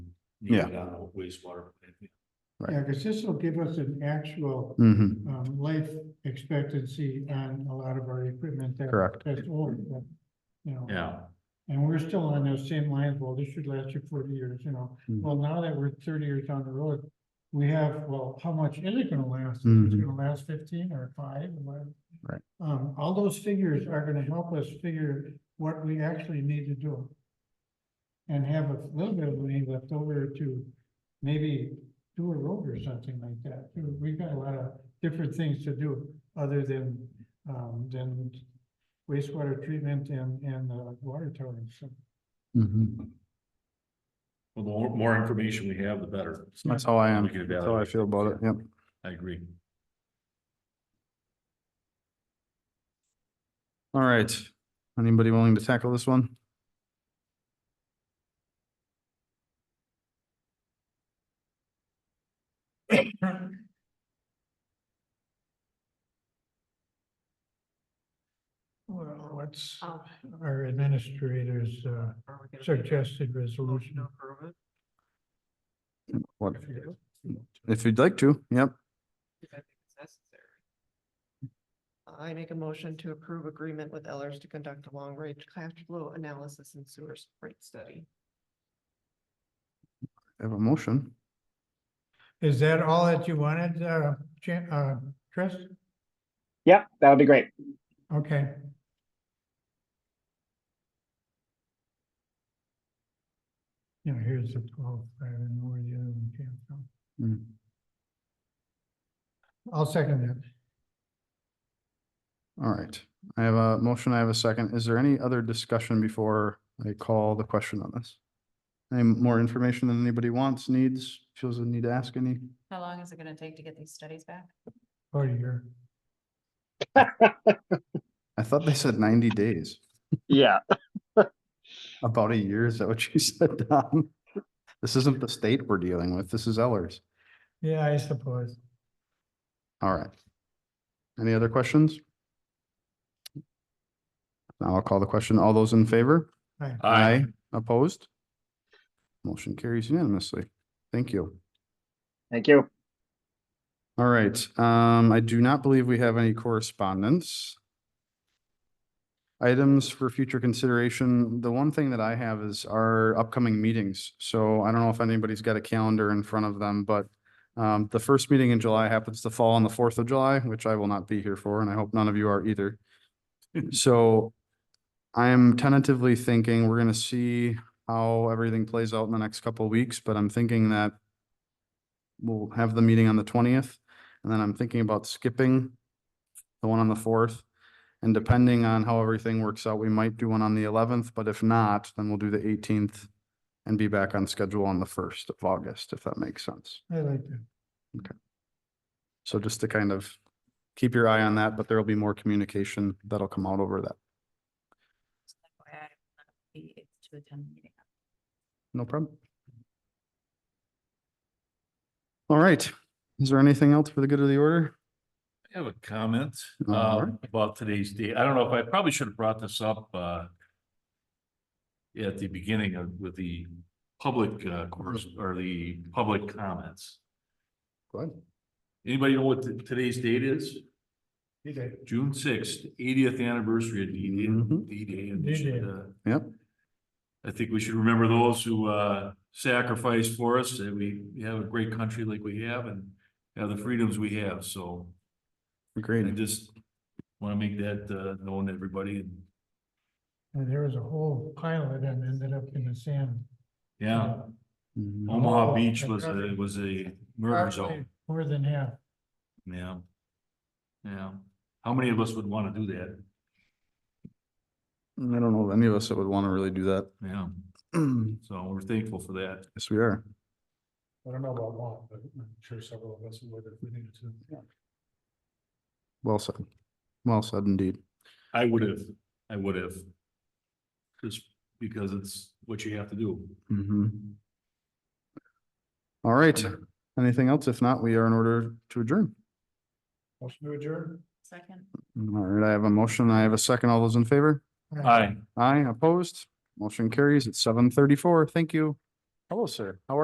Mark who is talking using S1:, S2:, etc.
S1: you
S2: Yeah.
S1: go down the wastewater. plant.
S2: Right.
S3: Yeah, because this will give us an actual
S2: Mm-hmm.
S3: um life expectancy on a lot of our equipment that.
S2: Correct.
S3: That's old, that, you know.
S1: Yeah,
S3: And we're still on those same lines, well, this should last you forty years, you know,
S2: Mm.
S3: well, now that we're thirty years down the road. We have, well, how much is it gonna last? Is
S2: Mhm.
S3: it gonna last fifteen or five? or whatever?
S2: Right.
S3: Um, all those figures are gonna help us figure what we actually need to do. And have a little bit of money left over to maybe do a road or something like that. We've got a lot of different things to do other than, um, than wastewater treatment and, and uh, water tower and stuff.
S2: Mm-hmm.
S1: well, the more, more information we have, the better.
S2: That's how I am.
S1: We can
S2: That's how I
S1: evaluate
S2: feel about it. Yep.
S1: I agree.
S2: All right. Anybody willing to tackle this one?
S3: Well, what's
S4: Oh.
S3: our administrator's uh,
S4: Are we gonna make a
S3: suggested
S4: motion
S3: resolution?
S4: to approve it?
S2: What,
S3: If you-
S2: if you'd like to, yep.
S4: If I think it's necessary. I make a motion to approve agreement with Ellers to conduct a long-range cash flow analysis and sewer rate study.
S2: I have a motion.
S3: Is that all that you wanted, uh, Jan, uh, Chris?
S5: Yep, that would be great.
S3: Okay, you know, here's the twelve, I don't know where the other one came from.
S2: Mm.
S3: I'll second that.
S2: All right. I have a motion. I have a second. Is there any other discussion before I call the question on this? Any more information than anybody wants, needs, feels the need to ask any?
S6: How long is it gonna take to get these studies back?
S3: Oh, you're,
S2: I thought they said ninety days.
S5: Yeah.
S2: About a year, is that what you said, Don? This isn't the state we're dealing with, this is Ellers.
S3: yeah, I suppose.
S2: All right. Any other questions? Now I'll call the question. All those in favor?
S3: Aye.
S2: Opposed? Motion carries unanimously. Thank you.
S5: Thank you.
S2: All right, um, I do not believe we have any correspondence. Items for future consideration. The one thing that I have is our upcoming meetings. So I don't know if anybody's got a calendar in front of them, but um, the first meeting in July happens to fall on the fourth of July, which I will not be here for, and I hope none of you are either. So I am tentatively thinking we're gonna see how everything plays out in the next couple of weeks, but I'm thinking that we'll have the meeting on the twentieth, and then I'm thinking about skipping the one on the fourth. And depending on how everything works out, we might do one on the eleventh, but if not, then we'll do the eighteenth and be back on schedule on the first of August, if that makes sense.
S3: I like that.
S2: So just to kind of keep your eye on that, but there'll be more communication that'll come out over that.
S6: Just like why I will not be able To attend the meeting.
S2: No problem. All right. Is there anything else for the good of the order?
S1: I have a comment
S2: All
S1: um,
S2: right.
S1: about today's date. I don't know if I probably should have brought this up uh, at the beginning of with the public uh, course or the public comments.
S2: Go ahead.
S1: Anybody know what t- today's date is? June sixth, eightieth anniversary of D
S2: Mhm.
S1: Day. D Day. and we
S3: D-Day.
S1: should, uh,
S2: Yep.
S1: I think we should remember those who uh sacrificed for us, that we have a great country like we have and have the freedoms we have, so. I
S2: Agreed.
S1: just wanna make that uh known to everybody, and
S3: And there was a whole pile that ended up in the sand. Uh,
S1: yeah,
S2: Mhm.
S1: Omaha Beach was a, was a murder zone,
S3: Probably More than half.
S1: yeah. Yeah, how many of us would wanna do that,
S2: I don't know of any of us that would want to really do that.
S1: yeah,
S2: Yes,
S1: so we're thankful for that.
S2: we are.
S3: I don't know about one, but I'm sure several of us would if we needed to.
S2: Well said. Well said indeed.
S1: I would have, I would have. Just because it's what you have to do.
S2: Mhm. All right. Anything else? If not, we are in order to adjourn.
S3: Motion to adjourn?
S6: Second.
S2: All right, I have a motion. I have a second. All those in favor?
S1: Aye.
S2: Aye, opposed. Motion carries at seven thirty-four. Thank you. Hello, sir. How are